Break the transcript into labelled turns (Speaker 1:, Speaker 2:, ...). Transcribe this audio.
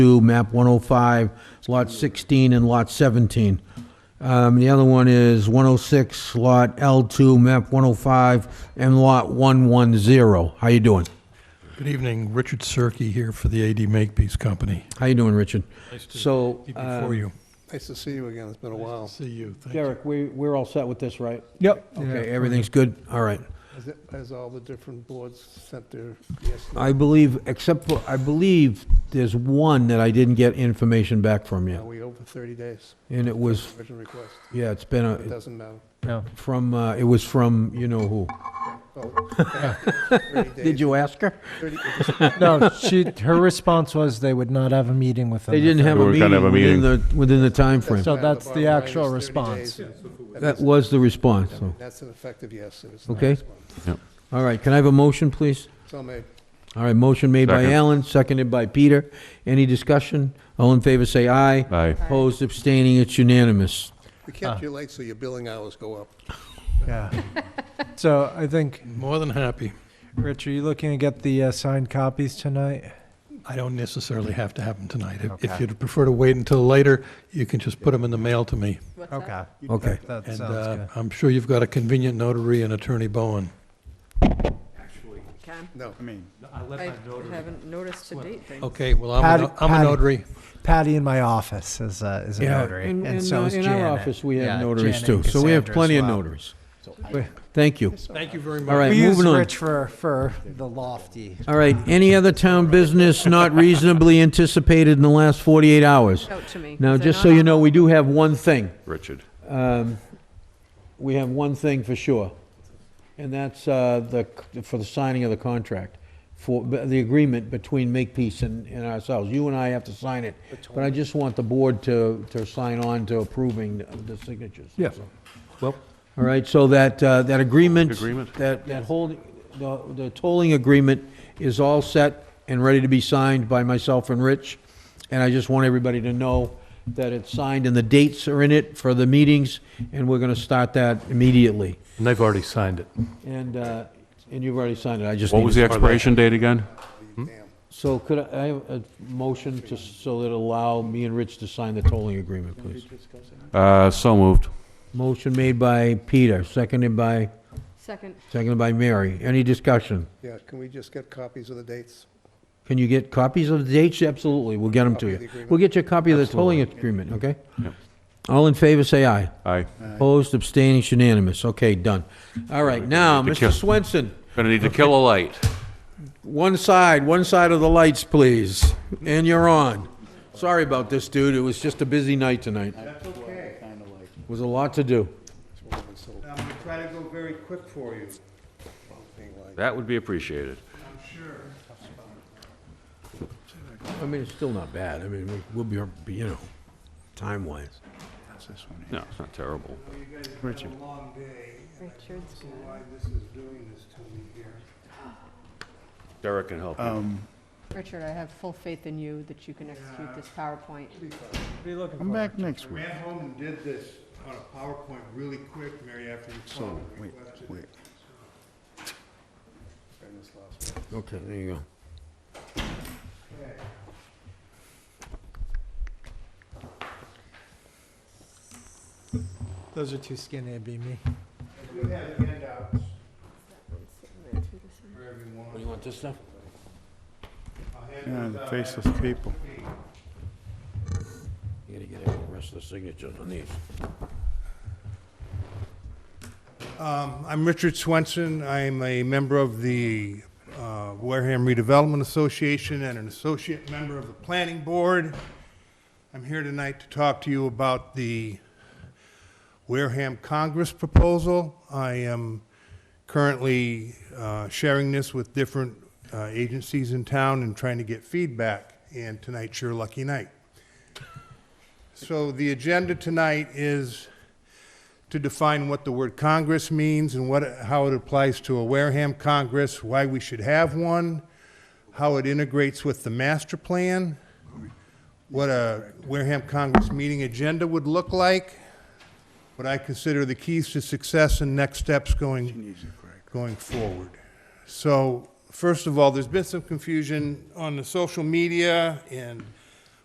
Speaker 1: 2, map 105, lot 16 and lot 17. Um, The other one is 106, lot L2, map 105, and lot 110. How you doing?
Speaker 2: Good evening, Richard Cirque here for the AD Makepeace Company.
Speaker 1: How you doing, Richard? So,
Speaker 2: Be
Speaker 1: uh,
Speaker 2: Before you.
Speaker 3: Nice to see you again, it's been a while.
Speaker 2: See you. Thank you.
Speaker 1: Derek, we, we're all set with this, right?
Speaker 4: Yep.
Speaker 1: Okay, everything's good? All right.
Speaker 3: Has it- Has all the different boards sent their, yes,
Speaker 1: I believe, except for, I believe there's one that I didn't get information back from
Speaker 3: are
Speaker 1: you.
Speaker 3: we over 30 days,
Speaker 1: And it was,
Speaker 3: original request?
Speaker 1: yeah, it's been,
Speaker 3: It
Speaker 1: a
Speaker 3: doesn't matter.
Speaker 4: No.
Speaker 1: from, uh, it was from, you know who.
Speaker 3: Oh, 30
Speaker 1: Did
Speaker 3: days,
Speaker 1: you ask her?
Speaker 3: 30
Speaker 4: No, she, her response was they would not have a meeting within.
Speaker 1: They
Speaker 4: the
Speaker 1: didn't have a
Speaker 5: We're gonna have
Speaker 1: meeting
Speaker 5: a
Speaker 1: within the, within the
Speaker 3: doesn't
Speaker 1: timeframe.
Speaker 4: So
Speaker 3: matter.
Speaker 4: that's the
Speaker 3: bottom line
Speaker 4: actual
Speaker 3: is 30
Speaker 4: response.
Speaker 3: days.
Speaker 1: That was the response, so.
Speaker 3: That's an effective yes. It was
Speaker 1: Okay.
Speaker 3: nice one.
Speaker 1: All right, can I have a motion, please?
Speaker 3: So may,
Speaker 1: All right, motion made by
Speaker 5: Second.
Speaker 1: Alan, seconded by Peter. Any discussion? All in favor, say aye.
Speaker 5: Aye.
Speaker 1: Opposed, abstaining, it's unanimous.
Speaker 3: we
Speaker 4: Ah.
Speaker 3: kept you late, so your billing hours go up.
Speaker 4: Yeah. So I think,
Speaker 2: More than happy.
Speaker 4: Rich, are you looking to get the uh, signed copies tonight?
Speaker 2: I don't necessarily have to have them tonight. If- If
Speaker 4: Okay.
Speaker 2: you'd prefer to wait until later, you can just put them in the mail to me.
Speaker 4: Okay.
Speaker 1: Okay.
Speaker 4: That
Speaker 2: And
Speaker 4: sounds
Speaker 2: uh,
Speaker 4: good.
Speaker 2: I'm sure you've got a convenient notary and Attorney Bowen.
Speaker 6: Can,
Speaker 3: No,
Speaker 6: I haven't noticed to date things.
Speaker 2: Okay, well, I'm a no-
Speaker 4: Patty-
Speaker 2: I'm a
Speaker 4: Patty.
Speaker 2: notary.
Speaker 4: Patty in my office is a, is a
Speaker 1: Yeah,
Speaker 4: notary,
Speaker 1: in-
Speaker 4: and,
Speaker 1: in,
Speaker 4: so
Speaker 1: uh,
Speaker 4: is
Speaker 1: In
Speaker 4: Janet.
Speaker 1: our office, we
Speaker 4: Yeah,
Speaker 1: have notaries
Speaker 4: Janet
Speaker 1: too,
Speaker 4: and
Speaker 1: so we have
Speaker 4: Cassandra
Speaker 1: plenty
Speaker 4: as
Speaker 1: of
Speaker 4: well.
Speaker 1: notaries. Thank you.
Speaker 2: Thank you very much.
Speaker 1: All right,
Speaker 4: We use
Speaker 1: moving on.
Speaker 4: Rich for, for the lofty.
Speaker 1: All right, any other town business not reasonably anticipated in the last 48 hours?
Speaker 6: Out to me.
Speaker 1: Now,
Speaker 6: Is it
Speaker 1: just
Speaker 6: not
Speaker 1: so
Speaker 6: on?
Speaker 1: you know, we do have one thing.
Speaker 5: Richard.
Speaker 1: Um, We have one thing for sure, and that's uh, the, for the signing of the contract, for the agreement between Makepeace and and ourselves. You and I have to sign it, but I just want the board to, to sign on to approving the signatures.
Speaker 4: Yes.
Speaker 5: Well,
Speaker 1: All right, so that, uh, that agreement.
Speaker 5: Agreement.
Speaker 1: That, that hold, the, the tolling agreement is all set and ready to be signed by myself and Rich. And I just want everybody to know that it's signed and the dates are in it for the meetings, and we're gonna start that immediately.
Speaker 7: And they've already signed it.
Speaker 1: And, uh, and you've already signed it, I just
Speaker 5: what
Speaker 1: need
Speaker 5: was
Speaker 1: to-
Speaker 5: the expiration date again?
Speaker 1: So could I, I have a motion to, so that allow me and Rich to sign the tolling agreement, please?
Speaker 5: Uh, so moved.
Speaker 1: Motion made by Peter, seconded by,
Speaker 6: Second,
Speaker 1: seconded by Mary. Any discussion?
Speaker 3: yeah, can we just get copies of the dates?
Speaker 1: Can you get copies of the dates? Absolutely, we'll get them to
Speaker 3: Copy of the
Speaker 1: you.
Speaker 3: agreement.
Speaker 1: We'll get you a copy of the tolling agreement, okay?
Speaker 5: Yep.
Speaker 1: All in favor, say aye.
Speaker 5: Aye.
Speaker 1: Opposed, abstaining, it's unanimous. Okay, done. All right, now,
Speaker 5: Need to kill-
Speaker 1: Mr. Swenson,
Speaker 5: Gonna need to kill a light.
Speaker 1: one side, one side of the lights, please, and you're on. Sorry about this, dude, it was just a busy night tonight. That's okay. Was a lot to do.
Speaker 8: I'm gonna try to go very quick for you.
Speaker 5: That would be appreciated.
Speaker 1: I mean, it's still not bad, I mean, we- we'll be, you know, time-wise.
Speaker 8: That's this one
Speaker 5: No, it's not terrible.
Speaker 8: You guys have had a long day, and I don't
Speaker 6: Richard's
Speaker 8: know why this is doing this to me here.
Speaker 5: Derek can help you.
Speaker 6: Richard, I have full faith in you that you can execute this PowerPoint.
Speaker 9: Come back next
Speaker 8: I
Speaker 9: week.
Speaker 8: ran home and did this on a PowerPoint really quick, Mary, after you
Speaker 9: So,
Speaker 8: called and
Speaker 9: wait,
Speaker 8: requested
Speaker 9: wait.
Speaker 1: Okay, there you go.
Speaker 4: Those are too skinny to be me.
Speaker 8: it. We have handouts for
Speaker 1: Do
Speaker 8: everyone.
Speaker 1: you want this stuff?
Speaker 8: I'll hand
Speaker 9: Yeah,
Speaker 8: those
Speaker 9: the
Speaker 8: out
Speaker 9: faceless
Speaker 8: after the
Speaker 9: people.
Speaker 8: meeting.
Speaker 1: You gotta get the rest of the signatures on these.
Speaker 8: Um, I'm Richard Swenson. I'm a member of the uh, Wareham Redevelopment Association and an associate member of the Planning Board. I'm here tonight to talk to you about the Wareham Congress proposal. I am currently uh, sharing this with different uh, agencies in town and trying to get feedback, and tonight's your lucky night. So the agenda tonight is to define what the word Congress means and what, how it applies to a Wareham Congress, why we should have one, how it integrates with the master plan, what a Wareham Congress meeting agenda would look like, what I consider the keys to success and next steps going, going forward. So, first of all, there's been some confusion on the social media and